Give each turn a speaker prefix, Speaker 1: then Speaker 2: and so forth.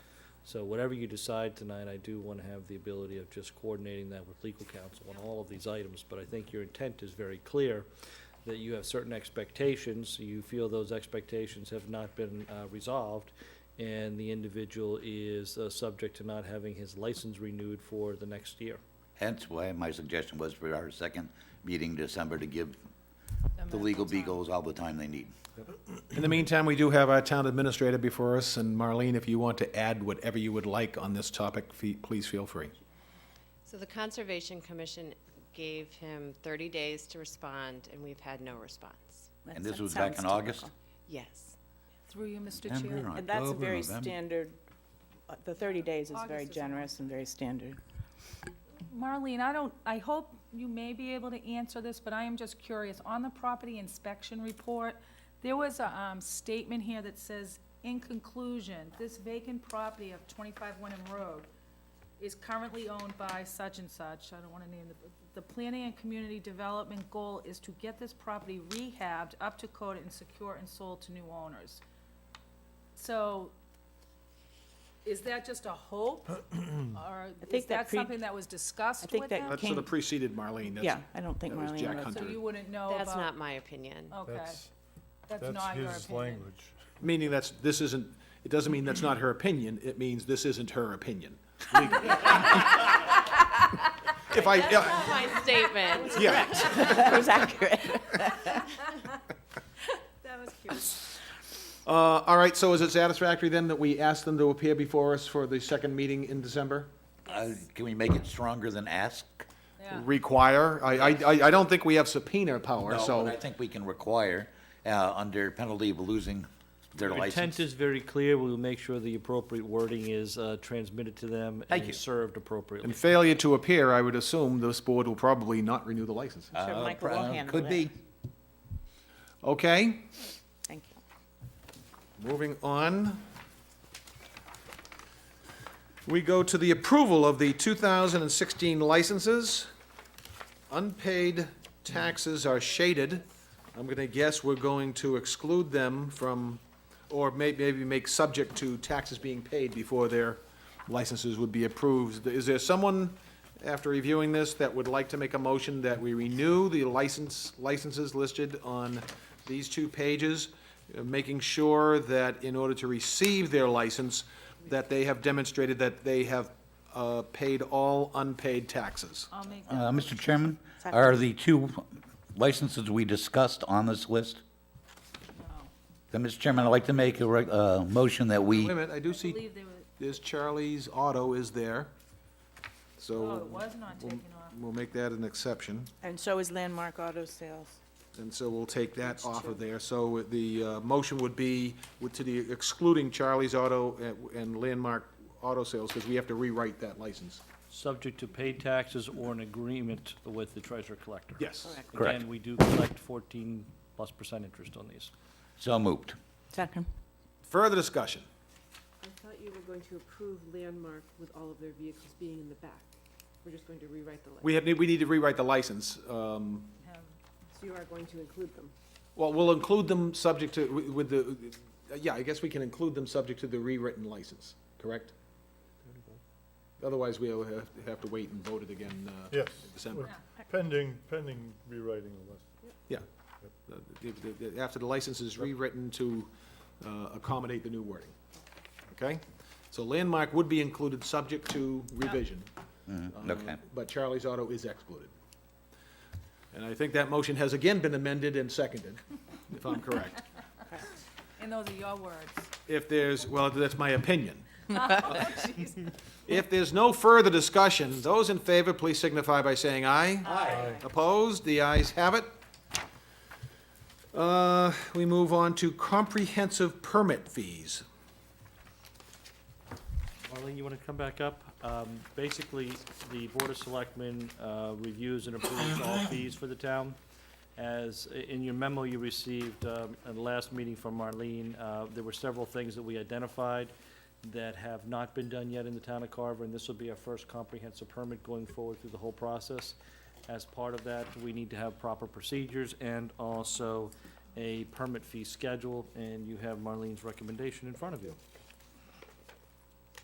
Speaker 1: So whatever you decide tonight, I do want to have the ability of just coordinating that with legal counsel on all of these items. But I think your intent is very clear, that you have certain expectations, you feel those expectations have not been uh, resolved, and the individual is uh, subject to not having his license renewed for the next year.
Speaker 2: Hence why my suggestion was for our second meeting in December to give the
Speaker 3: amount
Speaker 2: legal
Speaker 3: of time.
Speaker 2: beagles all the time they need.
Speaker 4: In the meantime, we do have our town administrator before us, and Marlene, if you want to add whatever you would like on this topic, fe- please feel free.
Speaker 3: So the Conservation Commission gave him 30 days to respond, and we've had no response.
Speaker 2: And this was back in August?
Speaker 3: Yes.
Speaker 5: Through you, Mr.
Speaker 2: September,
Speaker 5: Chair.
Speaker 6: And that's a
Speaker 2: October,
Speaker 6: very
Speaker 2: November.
Speaker 6: standard, uh, the 30 days is very
Speaker 5: August is-
Speaker 6: generous and very standard.
Speaker 5: Marlene, I don't, I hope you may be able to answer this, but I am just curious. On the property inspection report, there was a um, statement here that says, "In conclusion, this vacant property of 25 Wyndham Road is currently owned by such and such." I don't want to name the, the planning and community development goal is to get this property rehabbed up to code and secure and sold to new owners. So is that just a hope? Or
Speaker 6: think
Speaker 5: is
Speaker 6: that
Speaker 5: that
Speaker 6: pre-
Speaker 5: something that was discussed
Speaker 6: I
Speaker 5: with
Speaker 6: think
Speaker 5: them?
Speaker 6: that
Speaker 4: That sort
Speaker 6: King-
Speaker 4: of preceded Marlene. that's-
Speaker 6: Yeah, I don't think
Speaker 4: that was Jack
Speaker 6: Marlene was.
Speaker 4: Hunt.
Speaker 5: So you wouldn't know about? Oh.
Speaker 3: That's not my opinion.
Speaker 5: Okay,
Speaker 7: That's,
Speaker 5: that's
Speaker 7: that's
Speaker 5: not your
Speaker 7: his
Speaker 5: opinion.
Speaker 7: language.
Speaker 4: Meaning that's, this isn't, it doesn't mean that's not her opinion, it means this isn't her opinion. legally. If I,
Speaker 3: That's
Speaker 4: yeah,
Speaker 3: not my statement.
Speaker 4: yeah,
Speaker 6: That was accurate.
Speaker 5: That was cute.
Speaker 4: Uh, all right, so is it satisfactory then that we ask them to appear before us for the second meeting in December?
Speaker 2: Uh, Can we make it stronger than ask?
Speaker 5: Yeah.
Speaker 4: Require, I, I, I- I don't think we have subpoena power,
Speaker 2: No,
Speaker 4: so.
Speaker 2: but I think we can require, uh, under penalty of losing their
Speaker 1: Your
Speaker 2: license.
Speaker 1: intent is very clear, we will make sure the appropriate wording is uh, transmitted to them
Speaker 2: Thank you.
Speaker 1: and served
Speaker 4: In
Speaker 1: appropriately.
Speaker 4: failure to appear, I would assume this board will probably not renew the license.
Speaker 6: I'm sure
Speaker 2: Uh,
Speaker 6: Michael
Speaker 2: pro-
Speaker 6: will handle
Speaker 2: Could
Speaker 6: it.
Speaker 2: be.
Speaker 4: Okay,
Speaker 6: Thank you.
Speaker 4: moving on. We go to the approval of the 2016 licenses. Unpaid taxes are shaded. I'm going to guess we're going to exclude them from, or may- maybe make subject to taxes being paid before their licenses would be approved. Is there someone, after reviewing this, that would like to make a motion that we renew the license, licenses listed on these two pages, uh, making sure that in order to receive their license, that they have demonstrated that they have uh, paid all unpaid taxes?
Speaker 5: I'll make that.
Speaker 2: Uh, Mr. Chairman,
Speaker 6: Second.
Speaker 2: are the two licenses we discussed on this list? Then, Mr. Chairman, I'd like to make a, rec- uh, motion that we.
Speaker 4: Wait a minute, I do
Speaker 5: I
Speaker 4: see,
Speaker 5: believe they were,
Speaker 4: there's Charlie's Auto is
Speaker 5: oh,
Speaker 4: there,
Speaker 5: it
Speaker 4: so
Speaker 5: was not taken off.
Speaker 4: we'll make that an exception.
Speaker 6: And so is Landmark Auto Sales.
Speaker 4: And so we'll take that off of there. So the uh, motion would be with- to the excluding Charlie's Auto and- and Landmark Auto Sales, because we have to rewrite that license.
Speaker 1: Subject to paid taxes or an agreement with the treasurer collector.
Speaker 4: Yes.
Speaker 2: Correct.
Speaker 1: Again, we do collect fourteen plus percent interest on these.
Speaker 2: So moved.
Speaker 6: Second.
Speaker 4: Further discussion.
Speaker 8: I thought you were going to approve Landmark with all of their vehicles being in the back. We're just going to rewrite the list.
Speaker 4: We have, we need to rewrite the license. Um,
Speaker 8: So you are going to include them.
Speaker 4: Well, we'll include them subject to, wi- with the, yeah, I guess we can include them subject to the rewritten license, correct? Otherwise, we'll have have to wait and vote it again uh, in
Speaker 7: Yes.
Speaker 4: December.
Speaker 7: Pending, pending rewriting the list.
Speaker 4: Yeah. Uh, if- if- if- After the license is rewritten to uh, accommodate the new wording. Okay? So landmark would be included, subject to revision. Uh,
Speaker 2: okay.
Speaker 4: But Charlie's Auto is excluded. And I think that motion has again been amended and seconded, if I'm correct.
Speaker 5: And those are your words.
Speaker 4: If there's, well, that's my opinion. If there's no further discussion, those in favor, please signify by saying aye. Aye. Opposed? The ayes have it. Uh, We move on to comprehensive permit fees.
Speaker 1: Marlene, you want to come back up? Um, Basically, the Board of Selectmen uh, reviews and approves all fees for the town. As, i- in your memo you received um, at the last meeting from Marlene, uh, there were several things that we identified that have not been done yet in the town of Carver, and this will be our first comprehensive permit going forward through the whole process. As part of that, we need to have proper procedures and also a permit fee schedule, and you have Marlene's recommendation in front of you.